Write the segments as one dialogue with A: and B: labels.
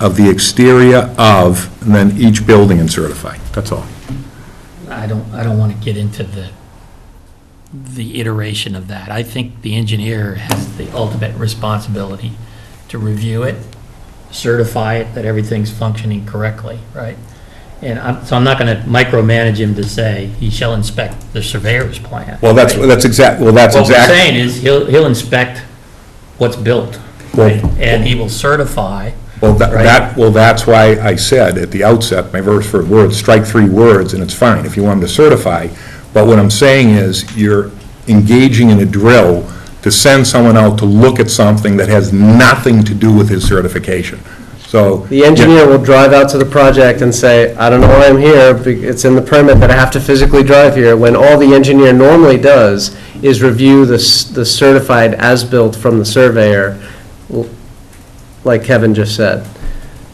A: of the exterior of, and then each building and certify, that's all.
B: I don't, I don't want to get into the, the iteration of that. I think the engineer has the ultimate responsibility to review it, certify it, that everything's functioning correctly, right? And I'm, so I'm not going to micromanage him to say, he shall inspect the surveyor's plan.
A: Well, that's,
B: right?
A: that's exact, well, that's
B: What we're
A: exact,
B: saying is, he'll, he'll inspect what's built,
A: Well-
B: right? and he will certify,
A: well, tha-
B: right.
A: that, well, that's why I said at the outset, my verse for words, strike three words, and it's fine if you want them to certify, but what I'm saying is, you're engaging in a drill to send someone out to look at something that has nothing to do with his certification, so.
C: The engineer will drive out to the project and say, I don't know why I'm here, be- it's in the permit that I have to physically drive here, when all the engineer normally does is review the s- the certified as-built from the surveyor, l- like Kevin just said.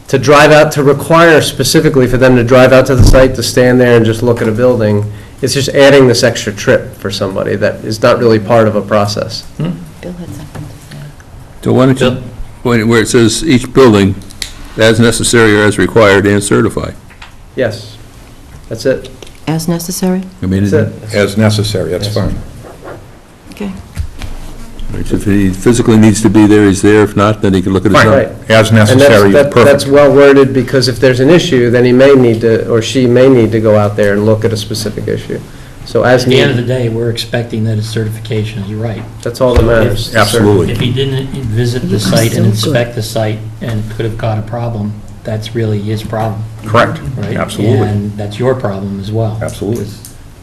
C: To drive out, to require specifically for them to drive out to the site, to stand there and just look at a building, it's just adding this extra trip for somebody that is not really part of a process.
D: Bill had something to say.
E: So why don't you,
B: Bill?
E: when- where it says each building, as necessary or as required and certified.
C: Yes, that's it,
D: As necessary?
E: I mean,
C: that's it.
A: as necessary, that's
C: Yes.
A: fine.
D: Okay.
E: if he physically needs to be there, he's there. If not, then he can look at his
C: Right.
E: own.
A: As
C: And that's-
A: necessary,
C: that- That's
A: perfect.
C: well worded, because if there's an issue, then he may need to, or she may need to go out there and look at a specific issue. So
B: at
C: as
B: the end of the day,
C: needed,
B: we're expecting that his certification is right.
C: that's all that matters.
A: Absolutely.
B: If he didn't visit the site and inspect the site and could have got a problem, that's really his problem,
A: Correct.
B: right?
A: Absolutely.
B: And that's your problem as well.
A: Absolutely.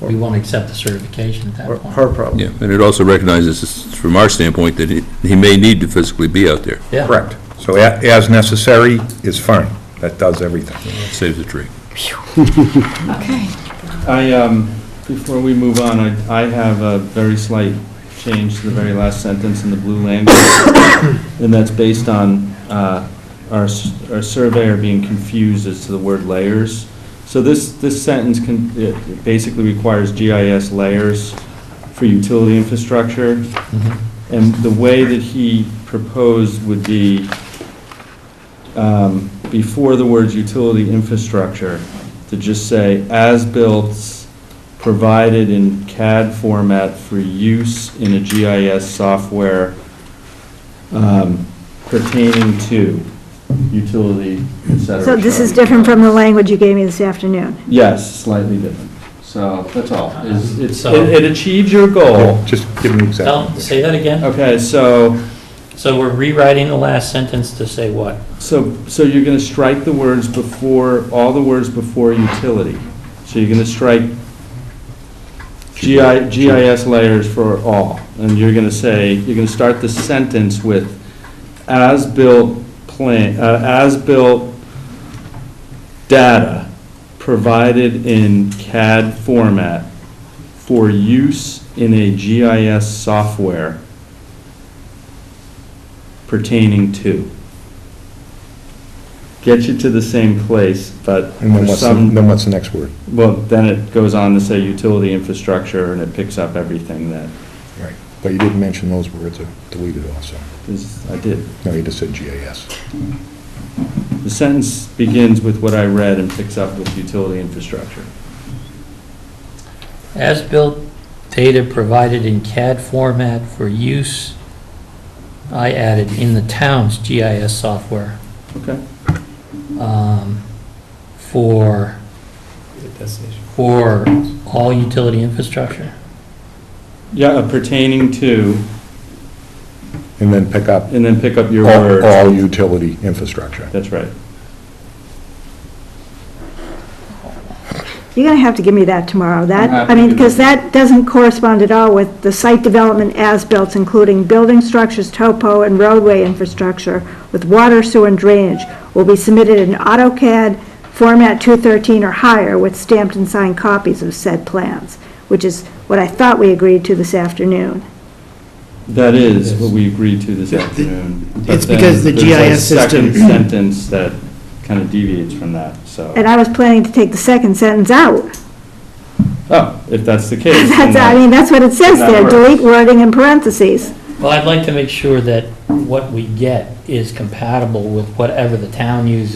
B: We won't accept the certification at
C: Or
B: that
C: Her
B: point.
C: problem.
E: Yeah, and it also recognizes, from our standpoint, that he he may need to physically be out there.
B: Yeah.
A: Correct. So a- as necessary is fine. That does everything.
E: Saves a tree.
D: Okay.
F: I, um, before we move on, I, I have a very slight change to the very last sentence in the blue language, and that's based on, uh, our, s- our surveyor being confused as to the word layers. So this, this sentence can, it it basically requires GIS layers for utility infrastructure,
B: Mhm.
F: and the way that he proposed would be, um, before the words utility infrastructure, to just say as-built provided in CAD format for use in a GIS software um, pertaining to utility, et cetera.
G: So this is different from the language you gave me this afternoon.
F: Yes, slightly different. So that's all. It's- it's-
B: So-
F: It it achieves your goal.
A: Just give me
B: Tell,
A: exactly.
B: say that again.
F: Okay, so
B: So we're rewriting the last sentence to say what?
F: So, so you're going to strike the words before, all the words before utility. So you're going to strike GI, GIS layers for all. And you're going to say, you're going to start the sentence with as-built plan, uh, as-built data provided in CAD format for use in a GIS software pertaining to. Get you to the same place, but
A: And then
F: for
A: what's, the- then
F: some,
A: what's the next word?
F: well, then it goes on to say utility infrastructure, and it picks up everything that
A: Right. But you didn't mention those words, I deleted also.
F: is, I did.
A: No, you just said GIS.
F: The sentence begins with what I read and picks up with utility infrastructure.
B: As-built data provided in CAD format for use, I added in the town's GIS software.
F: Okay.
B: um, For, for all utility infrastructure.
F: Yeah, uh, pertaining to,
A: And then pick up
F: and then pick up your
A: all,
F: word.
A: all utility infrastructure.
F: That's right.
G: You're going to have to give me that tomorrow.
F: I'm
G: That,
F: happy
G: I mean,
F: to do
G: because that doesn't correspond at all with the site development as-built, including building structures, topo, and roadway infrastructure with water, sewer, and drainage, will be submitted in AutoCAD format 213 or higher with stamped and signed copies of said plans, which is what I thought we agreed to this afternoon.
F: That is what we agreed to this afternoon. but
H: It's
F: then
H: because the
F: there's a
H: GIS
F: Second
H: system-
F: sentence that kind of deviates from that, so.
G: And I was planning to take the second sentence out.
F: Oh, if that's the case. then
G: That's, I
F: that-
G: mean, that's what it says
F: that
G: there,
F: works.
G: delete wording in parentheses.
B: Well, I'd like to make sure that what we get is compatible with whatever the town uses